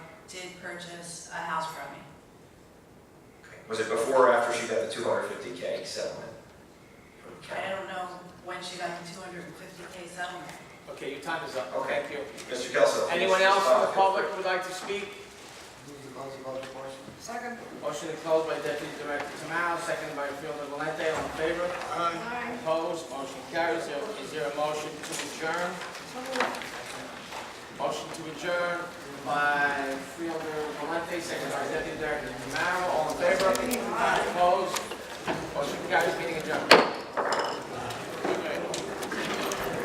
did purchase a house from me. Was it before or after she got the 250K settlement? from I the county? don't know when she got the 250K settlement. Okay, your time is up. Okay. Thank you. Mr. Kelso. Anyone else from the public who would like to speak? Move to close the public portion. Second. Motion to close by Deputy Director Tamao, seconded by Fielder Valente, all in favor? Aye. Opposed, motion carries. There- Is there a motion to adjourn? So moved. Motion to adjourn by Fielder Valente, seconded by Deputy Director Tamao, all in favor? Opposed, motion carries, meeting adjourned.